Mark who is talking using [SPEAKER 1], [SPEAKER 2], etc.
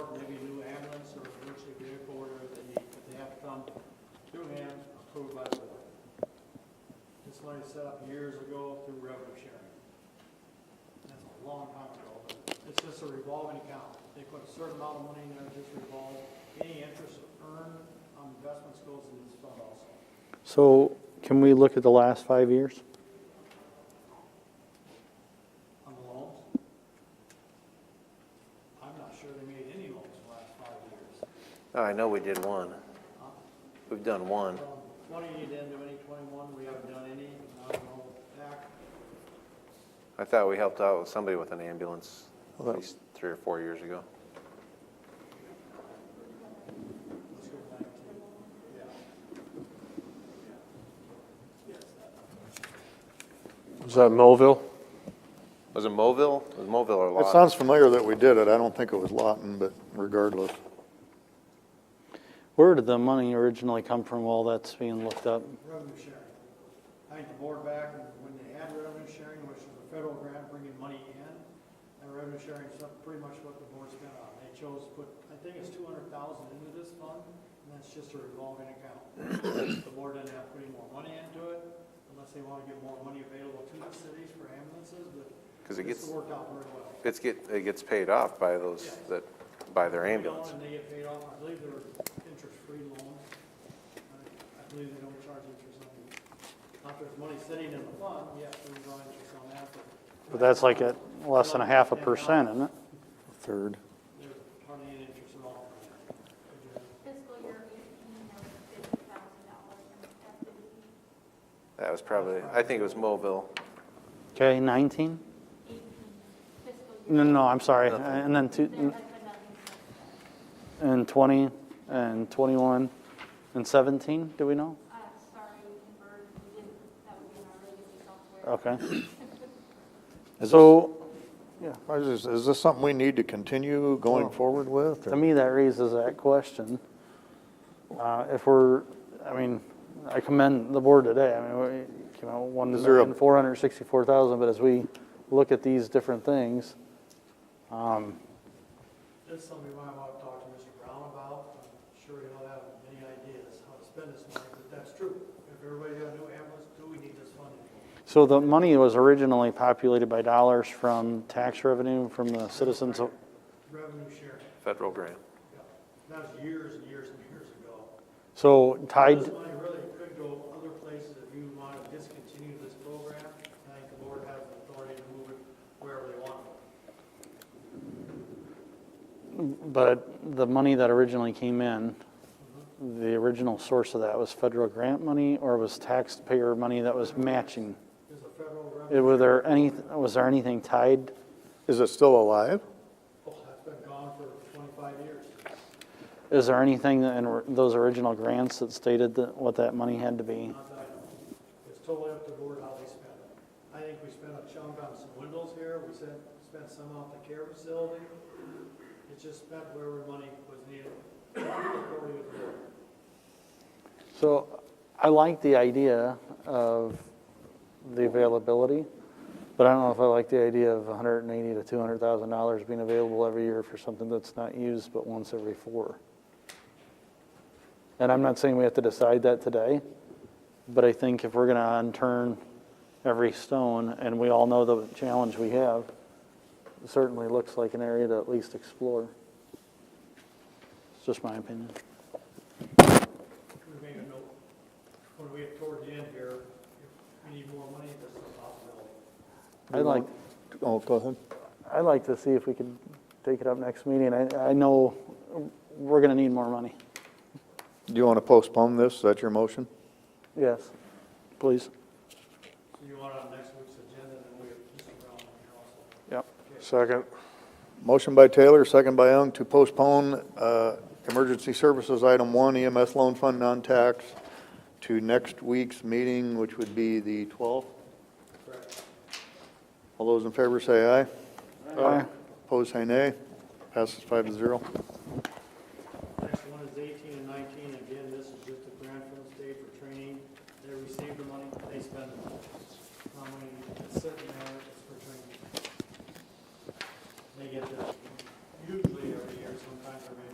[SPEAKER 1] just a revolving account. They put a certain amount of money in there, just revolve. Any interest earned on investments goes in this fund also.
[SPEAKER 2] So can we look at the last five years?
[SPEAKER 1] On the loans? I'm not sure they made any loans in the last five years.
[SPEAKER 3] Oh, I know we did one. We've done one.
[SPEAKER 1] From twenty, you didn't do any, twenty-one, we haven't done any, I don't know, back.
[SPEAKER 3] I thought we helped out with somebody with an ambulance at
[SPEAKER 2] Well, that-
[SPEAKER 3] least three or four years ago.
[SPEAKER 1] Let's go back to, yeah. Yes, that-
[SPEAKER 4] Was that Melville?
[SPEAKER 3] Was it Mobile? Was Mobile or
[SPEAKER 5] It
[SPEAKER 3] Lawton?
[SPEAKER 5] sounds familiar that we did it. I don't think it was Lawton, but regardless.
[SPEAKER 2] Where did the money originally come from while that's being looked up?
[SPEAKER 1] revenue sharing. I think the board back, when they had revenue sharing, which was a federal grant bringing money in, and revenue sharing is pretty much what the board spent on. They chose to put, I think it's two hundred thousand into this fund, and that's just a revolving account. The board didn't have to put any more money into it, unless they want to get more money available to the cities for ambulances, but
[SPEAKER 3] 'Cause it
[SPEAKER 1] this
[SPEAKER 3] gets-
[SPEAKER 1] worked out very well.
[SPEAKER 3] It's get, it gets paid off by those that, by their ambulance.
[SPEAKER 1] And they get paid off, I believe they're interest-free loans. I- I believe they don't charge interest on them. Not there's money sitting in the fund, yes, we draw interest on that, but
[SPEAKER 2] But that's like at less than a half a percent, isn't it?
[SPEAKER 5] Third.
[SPEAKER 1] there's hardly any interest at all.
[SPEAKER 6] Fiscal year eighteen, there was fifty thousand dollars in activity,
[SPEAKER 3] That was probably, I think it was Mobile.
[SPEAKER 2] Okay, 19?
[SPEAKER 6] eighteen, fiscal year.
[SPEAKER 2] No, no, I'm sorry. And then two,
[SPEAKER 6] There has been nothing since.
[SPEAKER 2] and 20, and 21, and 17, do we know?
[SPEAKER 6] Uh, sorry, Bird, we didn't, that would be in our regular software.
[SPEAKER 2] Okay. So,
[SPEAKER 5] Is this, is this something we need to continue going forward with?
[SPEAKER 2] to
[SPEAKER 5] or-
[SPEAKER 2] me, that raises that question. Uh, If we're, I mean, I commend the board today, I mean, we came out one
[SPEAKER 5] Is there a-
[SPEAKER 2] million, four hundred sixty-four thousand, but as we look at these different things, um,
[SPEAKER 1] This is something we might want to talk to Mr. Brown about. I'm sure he'll have many ideas how to spend this money, but that's true. If everybody got a new ambulance, do we need this funding?
[SPEAKER 2] so the money was originally populated by dollars from tax revenue from the citizens. of-
[SPEAKER 1] Revenue sharing,
[SPEAKER 3] Federal grant.
[SPEAKER 1] yeah. That was years and years and years ago.
[SPEAKER 2] So tied,
[SPEAKER 1] This money really could go other places if you want to discontinue this program. I think the board has the authority to move it wherever they want.
[SPEAKER 2] but the money that originally came in, the original source of that was federal grant money or was taxpayer money that was matching?
[SPEAKER 1] There's a federal
[SPEAKER 2] It-
[SPEAKER 1] revenue,
[SPEAKER 2] Were there any, was there anything tied?
[SPEAKER 5] Is it still alive?
[SPEAKER 1] oh, that's been gone for 25 years.
[SPEAKER 2] Is there anything in or- those original grants that stated that, what that money had to be?
[SPEAKER 1] Not that I know. It's totally up to the board how they spend it. I think we spent a chunk on some windows here. We spent, spent some off the care facility. It's just spent wherever money was needed. Authority of the board.
[SPEAKER 2] So I like the idea of the availability, but I don't know if I like the idea of 180 to 200,000 dollars being available every year for something that's not used but once every four. And I'm not saying we have to decide that today, but I think if we're going to unturn every stone, and we all know the challenge we have, it certainly looks like an area to at least explore. It's just my opinion.
[SPEAKER 1] We made a note, when we get toward the end here, if we need more money, this is a possibility.
[SPEAKER 2] I'd like,
[SPEAKER 5] Oh, go ahead.
[SPEAKER 2] I'd like to see if we could take it up next meeting. I, I know we're gonna need more money.
[SPEAKER 5] Do you want to postpone this? Is that your motion?
[SPEAKER 2] Yes, please.
[SPEAKER 1] So you want it on next week's agenda, then we have Mr. Brown on here also.
[SPEAKER 2] Yep.
[SPEAKER 4] Second.
[SPEAKER 5] Motion by Taylor, second by Young, to postpone uh, Emergency Services Item 1 EMS Loan Fund Non-Tax to next week's meeting, which would be the 12th.
[SPEAKER 1] Correct.
[SPEAKER 5] All those in favor say aye.
[SPEAKER 2] Aye.
[SPEAKER 5] Opposed, say nay. Passes five to zero.
[SPEAKER 1] Next one is eighteen and nineteen, again, this is just a grant from the state for training. They receive the money, they spend it. How many is sitting there, it's for training. They get the